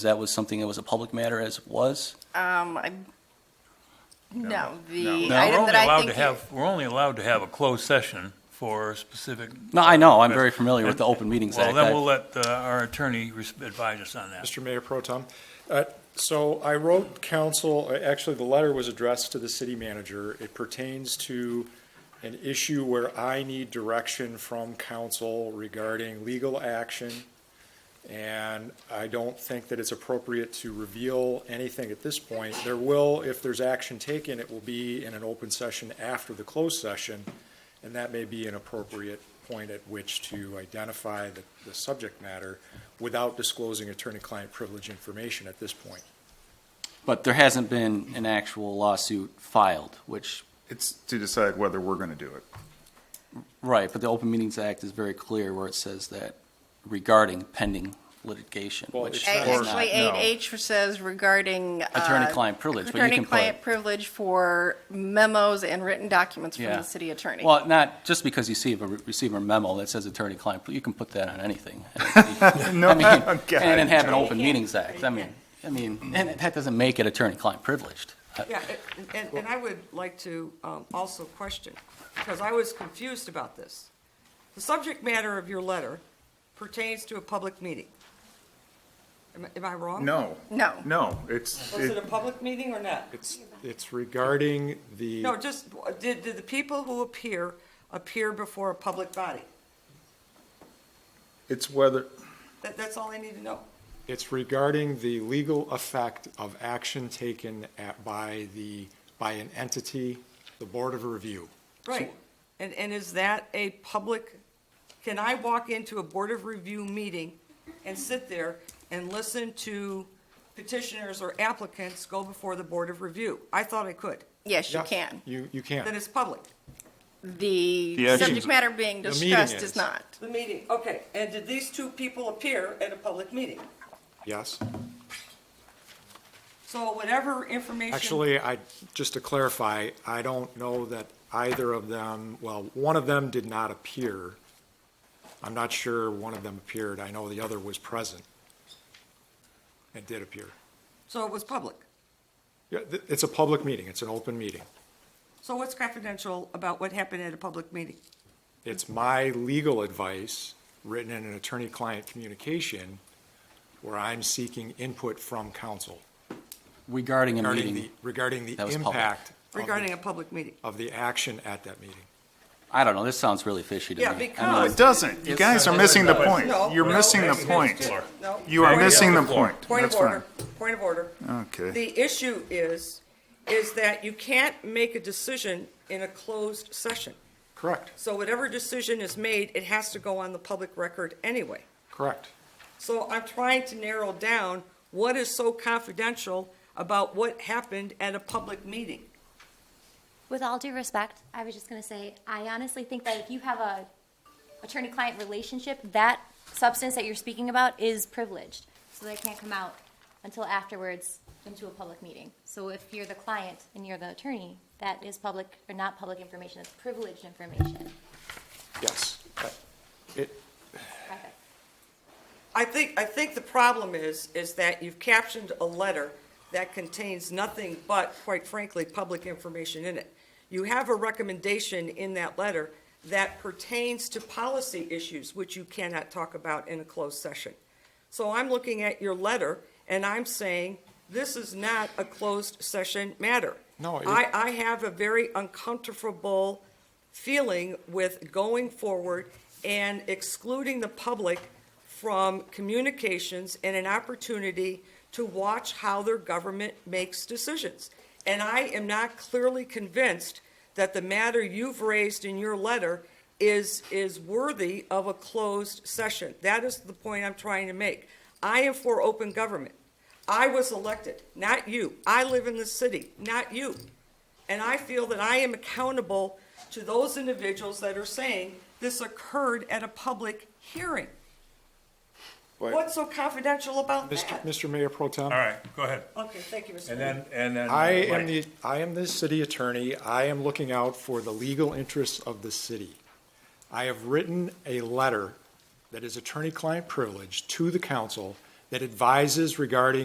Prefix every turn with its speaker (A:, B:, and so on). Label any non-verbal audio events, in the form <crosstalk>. A: That was something that was a public matter as was.
B: Um, I, no, the
A: No,
C: Now, we're
B: item
C: only
B: that I
C: allowed
B: think.
C: to
B: you-
C: have, we're only allowed to have a closed session for a specific.
A: No, I know, I'm very familiar with the Open Meetings
C: Well,
A: Act.
C: then we'll
A: I-
C: let uh, our attorney res- advise us on that.
D: Mr. Mayor Pro Tem. Uh, So I wrote council, uh, actually, the letter was addressed to the city manager. It pertains to an issue where I need direction from council regarding legal action. And I don't think that it's appropriate to reveal anything at this point. There will, if there's action taken, it will be in an open session after the closed session. And that may be an appropriate point at which to identify the, the subject matter without disclosing attorney-client privilege information at this point.
A: But there hasn't been an actual lawsuit filed, which,
E: It's to decide whether we're going to do it.
A: right, but the Open Meetings Act is very clear where it says that regarding pending litigation,
D: Well,
A: which
D: it's
B: A-
D: not-
A: is
B: uh, Actually,
A: not.
B: eight H says regarding. uh,
A: Attorney-client privilege, but you can put-
B: Attorney-client privilege for memos and written documents from
A: Yeah.
B: the city attorney.
A: Well, not, just because you see, a- receive a memo that says attorney-client, you can put that on
D: <laughs>
A: anything.
E: No,
A: I mean,
E: okay.
A: And then have an Open Meetings Act, I mean, I mean, and that doesn't make it attorney-client privileged.
F: Yeah, and- and, and I would like to um, also question, because I was confused about this. The subject matter of your letter pertains to a public meeting. Am I- am I wrong?
E: No,
B: No.
E: no, it's,
F: Was it a
E: it-
F: public meeting or not?
D: It's, it's regarding the,
F: No, just, did, did the people who appear, appear before a public body?
E: it's whether,
F: That, that's all I need to know.
D: it's regarding the legal effect of action taken at, by the, by an entity, the Board of Review.
F: Right. And, and is that a public, can I walk into a Board of Review meeting and sit there and listen to petitioners or applicants go before the Board of Review? I thought I could.
B: Yes, you
D: Yeah,
B: can.
D: You, you
F: Then
D: can.
F: it's public.
E: The
B: The
E: actions-
B: subject matter being
D: The meeting
B: discussed
D: is.
B: is not.
F: The meeting, okay. And did these two people appear at a public meeting?
D: Yes.
F: So whatever information.
D: Actually, I, just to clarify, I don't know that either of them, well, one of them did not appear. I'm not sure one of them appeared. I know the other was present. It did appear.
F: So it was public.
D: Yeah, th- It's a public meeting. It's an open meeting.
F: So what's confidential about what happened at a public meeting?
D: It's my legal advice, written in an attorney-client communication, where I'm seeking input from counsel
A: Regarding a
D: regarding
A: meeting,
D: the, regarding the
A: that was public.
D: impact of the-
F: Regarding a public meeting?
D: of the action at that meeting.
A: I don't know, this sounds really fishy to me.
F: Yeah,
A: I mean,
E: no,
F: because-
E: it doesn't. You guys are missing the point.
F: No,
E: You're
F: no,
E: missing the
F: it's-
E: point.
F: it's- no.
E: You are
F: Point of-
E: missing the point.
F: Point of
E: That's fine.
F: order, point of order.
E: Okay.
F: The issue is, is that you can't make a decision in a closed session.
D: Correct,
F: So whatever decision is made, it has to go on the public record anyway.
D: correct.
F: So I'm trying to narrow down what is so confidential about what happened at a public meeting.
G: With all due respect, I was just going to say, I honestly think that if you have a attorney-client relationship, that substance that you're speaking about is privileged, so that can't come out until afterwards into a public meeting. So if you're the client and you're the attorney, that is public, or not public information, it's privileged information.
D: Yes. Uh,
G: Perfect.
F: I think, I think the problem is, is that you've captioned a letter that contains nothing but, quite frankly, public information in it. You have a recommendation in that letter that pertains to policy issues, which you cannot talk about in a closed session. So I'm looking at your letter, and I'm saying, this is not a closed session matter.
D: No, it-
F: I, I have a very uncomfortable feeling with going forward and excluding the public from communications and an opportunity to watch how their government makes decisions. And I am not clearly convinced that the matter you've raised in your letter is, is worthy of a closed session. That is the point I'm trying to make. I am for open government. I was elected, not you. I live in the city, not you. And I feel that I am accountable to those individuals that are saying this occurred at a public hearing. What's so confidential about
D: Mr.
F: that?
D: Mr. Mayor Pro Tem?
C: All right, go ahead.
F: Okay, thank you, Mr.
C: And
F: Mayor.
C: then, and then.
D: I
C: Mike.
D: am the, I am the city attorney. I am looking out for the legal interests of the city. I have written a letter that is attorney-client privilege to the council that advises regarding